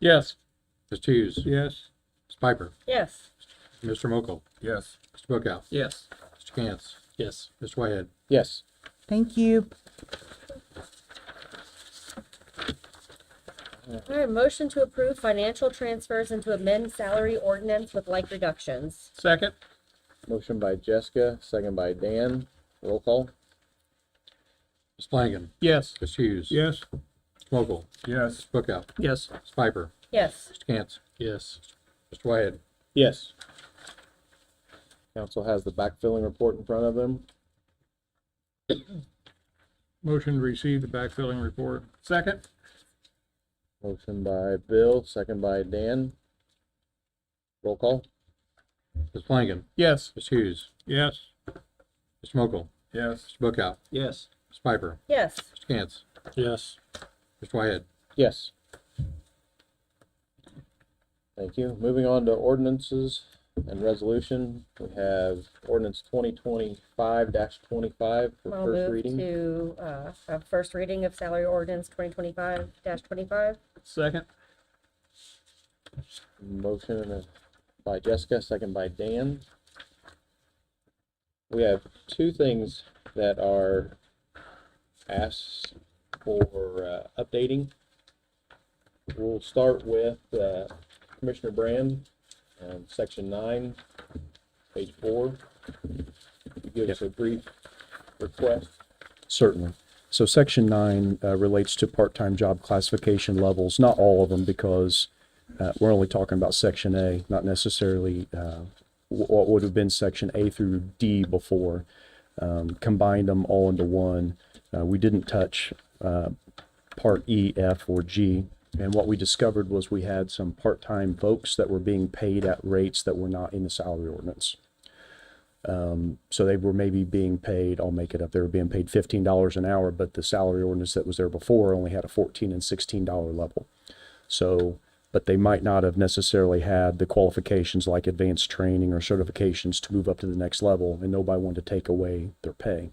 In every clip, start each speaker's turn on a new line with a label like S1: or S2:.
S1: Yes.
S2: Ms. Hughes, Ms.
S1: Yes.
S2: Piper,
S3: Yes.
S2: Mr. Mokel,
S4: Yes.
S2: Mr. Bookout,
S1: Yes.
S2: Mr. Cantz,
S1: Yes.
S2: Mr. Whitehead.
S1: Yes.
S5: Thank you.
S3: All right, motion to approve financial transfers and to amend salary ordinance with like reductions.
S1: Second?
S4: Motion by Jessica, second by Dan. Roll call.
S2: Ms. Flanagan,
S1: Yes.
S2: Ms. Hughes.
S1: Yes.
S2: Mr. Mokel,
S4: Yes.
S2: Mr. Bookout,
S1: Yes.
S2: Ms. Piper,
S3: Yes.
S2: Mr. Cantz,
S1: Yes.
S2: Mr. Whitehead.
S4: Yes. Council has the backfilling report in front of them.
S1: Motion to receive the backfilling report. Second?
S4: Motion by Bill, second by Dan. Roll call.
S2: Ms. Flanagan,
S1: Yes.
S2: Ms. Hughes,
S1: Yes.
S2: Mr. Mokel,
S4: Yes.
S2: Mr. Bookout,
S1: Yes.
S2: Ms. Piper,
S3: Yes.
S2: Mr. Cantz,
S1: Yes.
S2: Mr. Whitehead.
S4: Yes. Thank you. Moving on to ordinances and resolution, we have ordinance twenty twenty-five twenty-five for
S3: I'll
S4: first
S3: move
S4: reading.
S3: to, uh, have first reading of salary ordinance twenty twenty-five twenty-five.
S1: Second?
S4: Motion by Jessica, second by Dan. We have two things that are asked for uh, updating. We'll start with uh, Commissioner Brand, um, section nine, page four. You Give us a brief request.
S6: Certainly. So section nine uh, relates to part-time job classification levels, not all of them because uh, we're only talking about section A, not necessarily uh, wh- what would have been section A through D before. Um, Combined them all into one. Uh, We didn't touch uh, part E, F, or G. And what we discovered was we had some part-time folks that were being paid at rates that were not in the salary ordinance. So they were maybe being paid, I'll make it up, they were being paid fifteen dollars an hour, but the salary ordinance that was there before only had a fourteen and sixteen dollar level. So, but they might not have necessarily had the qualifications like advanced training or certifications to move up to the next level, and nobody wanted to take away their pay.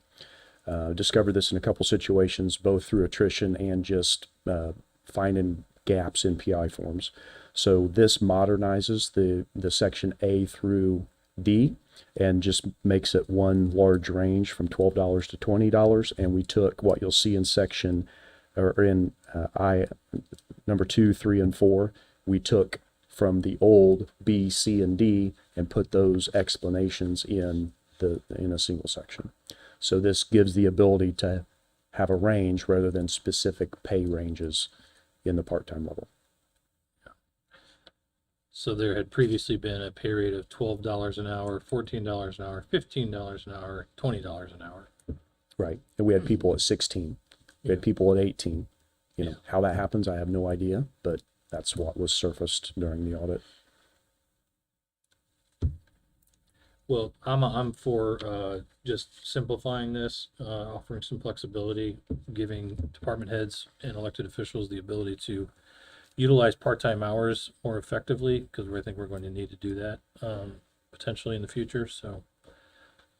S6: Uh, discovered this in a couple situations, both through attrition and just uh, finding gaps in PI forms. So this modernizes the the section A through D and just makes it one large range from twelve dollars to twenty dollars. And we took what you'll see in section or in uh, I number two, three, and four. We took from the old B, C, and D and put those explanations in the in a single section. So this gives the ability to have a range rather than specific pay ranges in the part-time level.
S7: So there had previously been a pay rate of twelve dollars an hour, fourteen dollars an hour, fifteen dollars an hour, twenty dollars an hour.
S6: Right. And we had people at 16. We had people at 18. You know, how that happens, I have no idea, but that's what was surfaced during the audit.
S7: Well, I'm, I'm for, uh, just simplifying this, uh, offering some flexibility, giving department heads and elected officials the ability to utilize part-time hours more effectively, because I think we're going to need to do that, um, potentially in the future, so.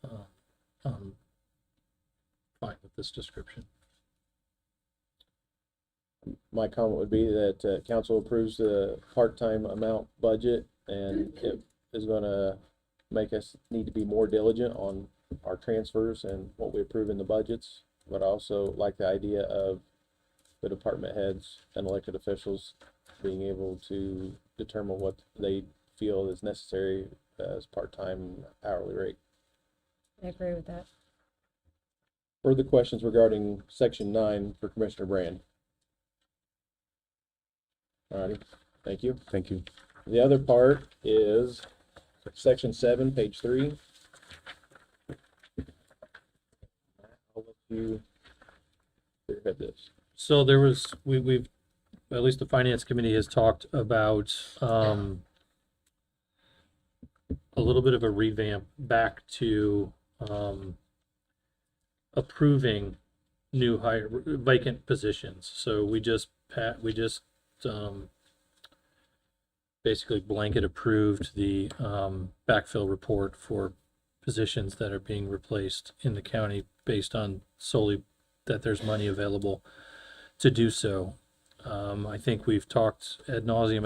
S7: uh, um, Fine with this description.
S4: My comment would be that uh, council approves the part-time amount budget and it is gonna make us need to be more diligent on our transfers and what we approve in the budgets. But I also like the idea of the department heads and elected officials being able to determine what they feel is necessary as part-time hourly rate.
S3: I agree with that.
S4: Further questions regarding section nine for Commissioner Brand? Alrighty, thank you.
S6: Thank you.
S4: The other part is section seven, page three. I'll let you spearhead this.
S7: So there was, we, we've, at least the finance committee has talked about, um, a little bit of a revamp back to, um, approving new hire vacant positions. So we just, pat, we just, um, basically blanket approved the, um, backfill report for positions that are being replaced in the county based on solely that there's money available to do so. Um, I think we've talked ad nauseum